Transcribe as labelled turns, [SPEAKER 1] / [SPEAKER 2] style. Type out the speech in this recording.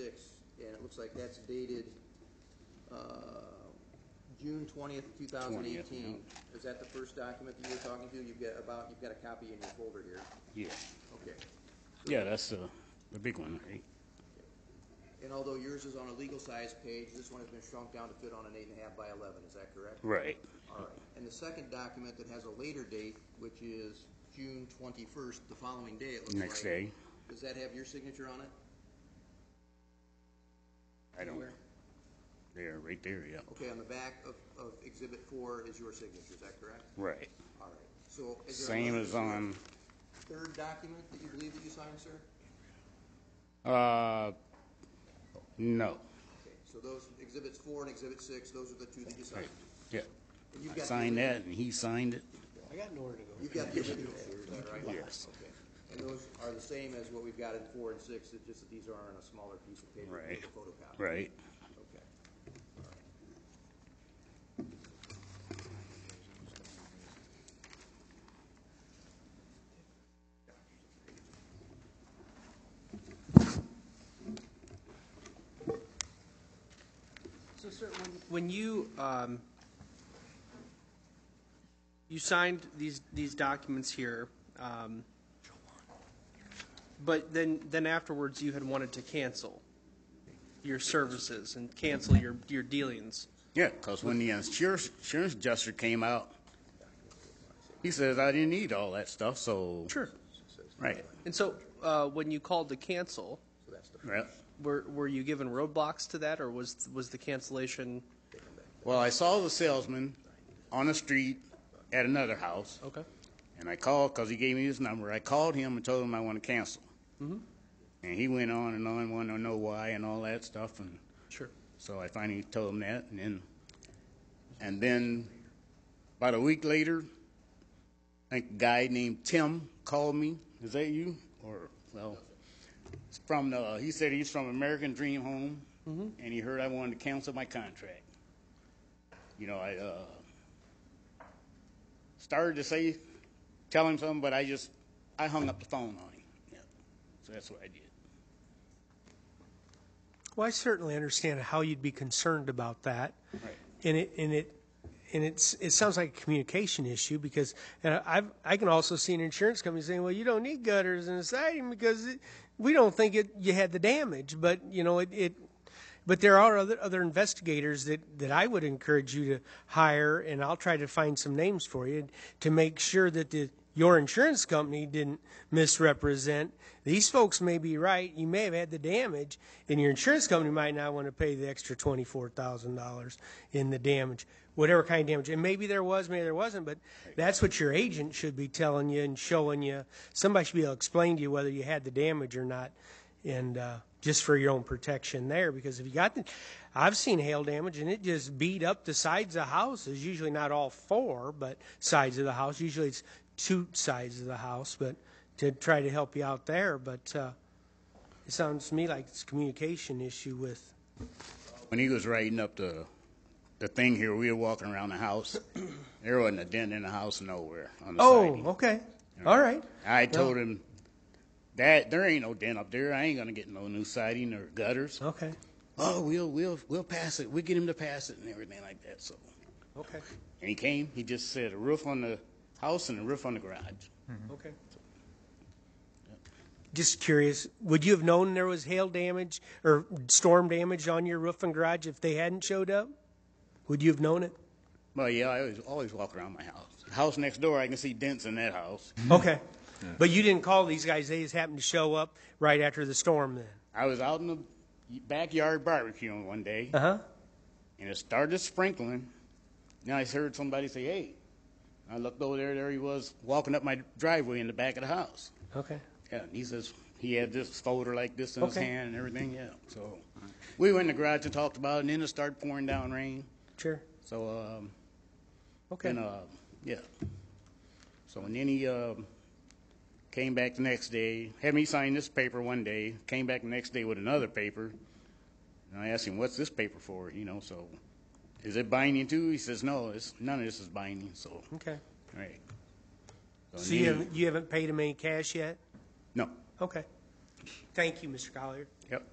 [SPEAKER 1] six, and it looks like that's dated uh, June twentieth, two thousand
[SPEAKER 2] 20th,
[SPEAKER 1] eighteen. Is that the first document that you were talking to? You've got about, you've got a copy in your folder here.
[SPEAKER 2] Yeah.
[SPEAKER 1] Okay.
[SPEAKER 2] Yeah, that's the, the big one, right?
[SPEAKER 1] And although yours is on a legal size page, this one has been shrunk down to fit on an eight and a half by eleven, is that correct?
[SPEAKER 2] Right.
[SPEAKER 1] All right. And the second document that has a later date, which is June twenty-first, the following day, it looks like.
[SPEAKER 2] Next day.
[SPEAKER 1] Does that have your signature on it?
[SPEAKER 2] I don't,
[SPEAKER 1] Anywhere?
[SPEAKER 2] there, right there, yeah.
[SPEAKER 1] Okay, on the back of, of exhibit four is your signature, is that correct?
[SPEAKER 2] Right.
[SPEAKER 1] All right, so is there
[SPEAKER 2] Same
[SPEAKER 1] another
[SPEAKER 2] as on,
[SPEAKER 1] Third document that you believe that you signed, sir?
[SPEAKER 2] uh, no,
[SPEAKER 1] Okay, so those exhibits four and exhibit six, those are the two that you signed.
[SPEAKER 2] yeah.
[SPEAKER 1] And you've
[SPEAKER 2] I
[SPEAKER 1] got the
[SPEAKER 2] signed
[SPEAKER 1] original-
[SPEAKER 2] that and he signed it.
[SPEAKER 3] I got nowhere to go.
[SPEAKER 1] You've got the original, is that right?
[SPEAKER 2] Yes.
[SPEAKER 1] Okay. And those are the same as what we've got in four and six, it's just that these are on a smaller piece of paper,
[SPEAKER 2] Right.
[SPEAKER 1] with a photocopy.
[SPEAKER 2] Right.
[SPEAKER 1] Okay.
[SPEAKER 3] So, sir, when, when you, um, you signed these, these documents here, um, but then, then afterwards you had wanted to cancel your services and cancel your, your dealings.
[SPEAKER 2] Yeah, because when the insurance, insurance adjuster came out, he says, I didn't need all that stuff, so.
[SPEAKER 3] Sure.
[SPEAKER 2] Right.
[SPEAKER 3] And so, uh, when you called to cancel,
[SPEAKER 1] So that's the,
[SPEAKER 2] Right.
[SPEAKER 3] were, were you given roadblocks to that, or was, was the cancellation?
[SPEAKER 1] they come back.
[SPEAKER 2] Well, I saw the salesman on the street at another house.
[SPEAKER 3] Okay.
[SPEAKER 2] And I called because he gave me his number. I called him and told him I want to cancel. And he went on and on, wanted to know why and all that stuff. And
[SPEAKER 3] Sure.
[SPEAKER 2] so I finally told him that. And then, and then about a week later, I think a guy named Tim called me. Is that you? Or well, it's from the. He said he's from American Dream Home, and he heard I wanted to cancel my contract. You know, I uh, started to say, tell him something, but I just, I hung up the phone on him. Yeah. So that's what I did.
[SPEAKER 4] Well, I certainly understand how you'd be concerned about that.
[SPEAKER 2] Right.
[SPEAKER 4] And it, and it, and it's, it sounds like a communication issue because, and I've, I can also see an insurance company saying, well, you don't need gutters and siding because it, we don't think it, you had the damage, but you know, it, it, but there are other, other investigators that, that I would encourage you to hire and I'll try to find some names for you to make sure that the, your insurance company didn't misrepresent. These folks may be right. You may have had the damage, and your insurance company might not want to pay the extra twenty-four thousand dollars in the damage, whatever kind of damage. And maybe there was, maybe there wasn't, but that's what your agent should be telling you and showing you. Somebody should be able to explain to you whether you had the damage or not, and uh, just for your own protection there, because if you got the, I've seen hail damage and it just beat up the sides of houses. Usually not all four, but sides of the house. Usually it's two sides of the house, but to try to help you out there. But uh, it sounds to me like it's a communication issue with.
[SPEAKER 2] When he was writing up the, the thing here, we were walking around the house. there wasn't a dent in the house nowhere on the
[SPEAKER 4] Oh,
[SPEAKER 2] siding.
[SPEAKER 4] okay, all right.
[SPEAKER 2] I told him that there ain't no dent up there. I ain't gonna get no new siding or gutters.
[SPEAKER 4] Okay,
[SPEAKER 2] Oh, we'll we'll we'll pass it. We'll get him to pass it and everything like that. So,
[SPEAKER 4] okay,
[SPEAKER 2] and he came. He just said a roof on the house and a roof on the garage.
[SPEAKER 4] okay. Just curious, would you have known there was hail damage or storm damage on your roof and garage if they hadn't showed up? Would you have known it?
[SPEAKER 2] Well, yeah, I always, always walk around my house. The house next door, I can see dents in that house.
[SPEAKER 4] Okay. But you didn't call these guys, they just happened to show up right after the storm then?
[SPEAKER 2] I was out in the backyard barbecuing one day,
[SPEAKER 4] Uh-huh.
[SPEAKER 2] and it started sprinkling. Then I heard somebody say, hey. I looked over there, there he was walking up my driveway in the back of the house.
[SPEAKER 4] Okay.
[SPEAKER 2] Yeah, and he says he had this folder like this in his
[SPEAKER 4] Okay.
[SPEAKER 2] hand and everything, yeah. So we went in the garage and talked about it, and then it started pouring down rain.
[SPEAKER 4] Sure.
[SPEAKER 2] So, um,
[SPEAKER 4] Okay.
[SPEAKER 2] And, uh, yeah. So, and then he, um, came back the next day, had me sign this paper one day, came back the next day with another paper. And I asked him, what's this paper for, you know, so, is it binding too? He says, no, it's, none of this is binding, so,
[SPEAKER 4] Okay.
[SPEAKER 2] right.
[SPEAKER 4] So you
[SPEAKER 2] then-
[SPEAKER 4] haven't, you haven't paid them any cash yet?
[SPEAKER 2] No,
[SPEAKER 4] Okay. Thank you, Mr. Collier.
[SPEAKER 2] yep.